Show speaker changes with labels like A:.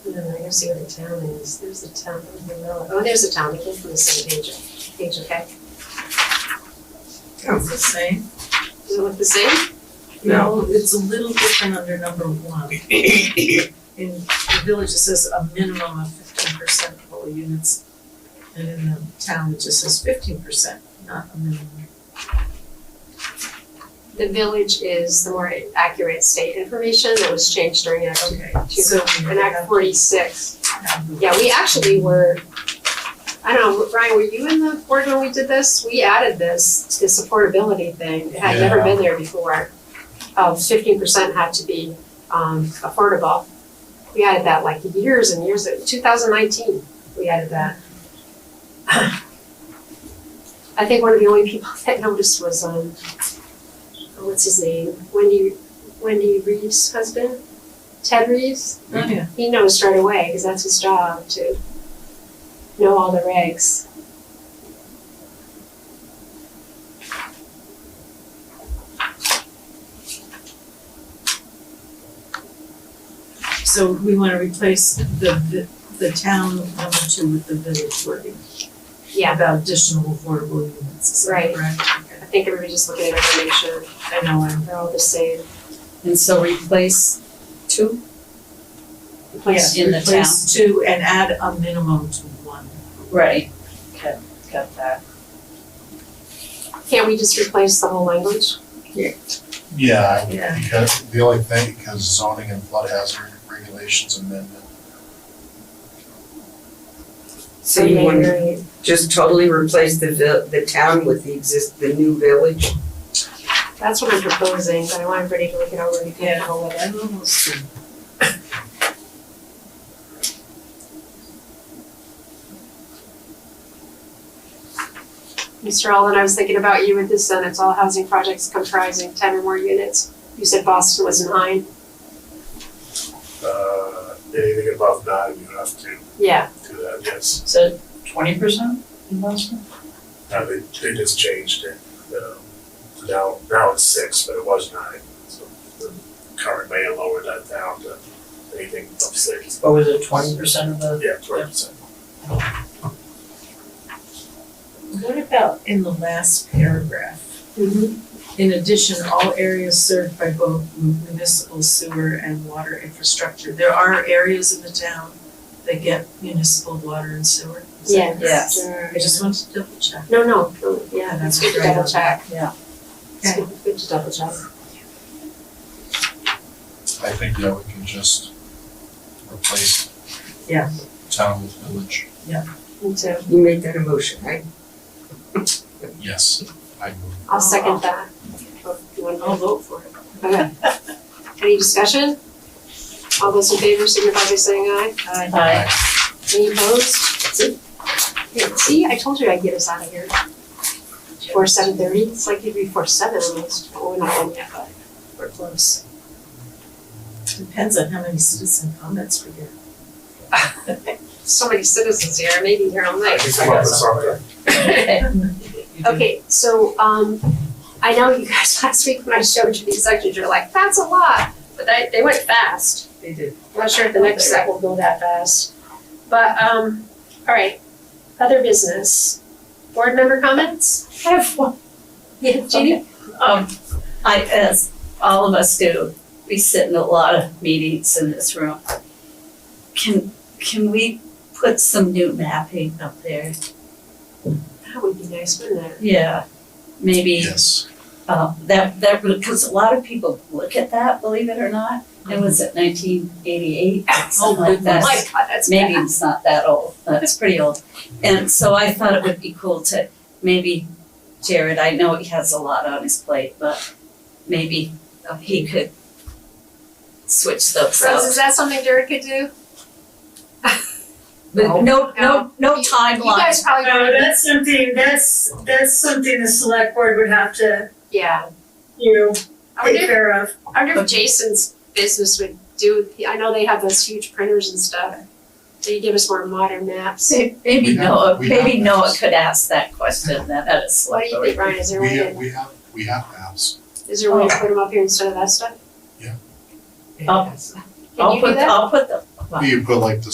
A: No, I gotta see where the town is, there's a town, in the middle. oh, there's a town, it came from the same page, page, okay?
B: It's the same.
A: Does it look the same?
B: No, it's a little different under number one. In the village, it says a minimum of fifteen percent of all units. And in the town, it just says fifteen percent, not a minimum.
A: The village is the more accurate state information that was changed during Act,
B: Okay, so we
A: in Act forty-six.
B: have the-
A: Yeah, we actually were, I don't know, Ryan, were you in the board when we did this? We added this, the supportability thing, it had never
C: Yeah.
A: been there before. Of fifteen percent had to be um affordable. We added that like years and years, two thousand nineteen, we added that. I think one of the only people that noticed was um, what's his name, Wendy, Wendy Reeves' husband, Ted Reeves?
B: Oh, yeah.
A: He knows straight away because that's his job to know all the regs.
B: So we wanna replace the, the, the town number two with the village wording.
A: Yeah,
B: About additional affordable units, is that
A: Right.
B: correct? Okay.
A: I think everybody's just looking at information.
B: I know, I'm,
A: They're all the same.
D: And so replace two?
B: yes,
D: In the town.
B: replace two and add a minimum to one.
D: Right. Okay, got that.
A: Can't we just replace the whole language?
C: Yeah,
B: Yeah.
C: because the only thing, because zoning and flood hazard regulations amendment.
E: So you want to
A: Maybe-
E: just totally replace the vil- the town with the exist, the new village?
A: That's what I'm proposing, but I want everybody to look it over and be
B: Yeah.
A: comfortable with it.
B: I'm almost done.
A: Mr. Allen, I was thinking about you with this sentence, all housing projects comprising ten or more units. You said Boston was nine.
F: Uh, anything above nine, you have to
A: Yeah,
F: do that, yes.
D: So twenty percent in Boston?
F: Now, they, they just changed it. Um, Now, now it's six, but it was nine. So the current mayor lowered that down to anything above six.
D: Or was it twenty percent of the?
F: Yeah, twenty percent.
B: What about in the last paragraph?
A: Mm-hmm.
B: In addition, all areas served by both municipal sewer and water infrastructure. There are areas in the town that get municipal water and sewer. Is that
A: yeah.
B: correct?
D: Yes.
B: I just wanted to double check.
A: No, no, no, yeah, it's good to double check.
D: Yeah.
A: It's good- good to double check.
C: I think that we can just replace.
B: Yeah.
C: Town with village.
A: Me too.
E: You made that a motion, right?
C: Yes, I move.
A: I'll second that. You want
B: I'll vote for it.
A: to- okay. Any discussion? All those in favor signify by saying aye.
G: Uh,
D: Aye.
A: Any opposed? See? Here, See, I told you I'd get us out of here. Before seven thirty, it's like you'd be before seven almost, well, we're not done yet, but we're close.
B: Depends on how many citizen comments we get.
A: So many citizens here, I may be here all
F: I
A: night.
F: can come up with something.
A: Okay, so, um, I know you guys last week when I showed you these sections, you're like, that's a lot, but they, they went fast.
B: They did.
A: I'm not sure if the next set will go that fast. But, um, all right, other business. Board member comments?
G: I have one.
A: Yeah, Jeannie?
G: Um, I, as all of us do, we sit in a lot of meetings in this room. Can, can we put some new mapping up there?
A: That would be nice, wouldn't it?
G: Yeah, maybe,
C: Yes,
G: uh, that, that, because a lot of people look at that, believe it or not. It was at nineteen eighty-eight, something like that.
B: Yes.
A: Oh My God, that's
G: maybe
A: bad.
G: it's not that old, that's pretty old. And so I thought it would be cool to maybe Jared, I know he has a lot on his plate, but maybe he could switch those
A: Rose, is
G: out.
A: that something Jared could do?
G: But no, no, no
A: You
G: timeline,
A: guys probably
H: No,
A: don't,
H: that's something, that's, that's something the select board would have to,
A: yeah.
H: you know,
A: I
H: take
A: wonder,
H: care of.
A: I wonder if Jason's business would do, I know they have those huge printers and stuff. They give us more modern maps.
C: We
G: maybe
C: have-
G: Noah,
C: we have
G: maybe Noah
C: maps.
G: could ask that question, that at a
A: What do
G: select
A: you think,
G: board.
A: Ryan? Is there a
C: we
A: way
C: have, we have, we have apps.
A: to, is there a
G: Oh.
A: way to put them up here instead of that stuff?
B: They
G: I'll-
B: asked.
A: Can you do
G: I'll put,
A: that?
G: I'll put the,
C: You put like the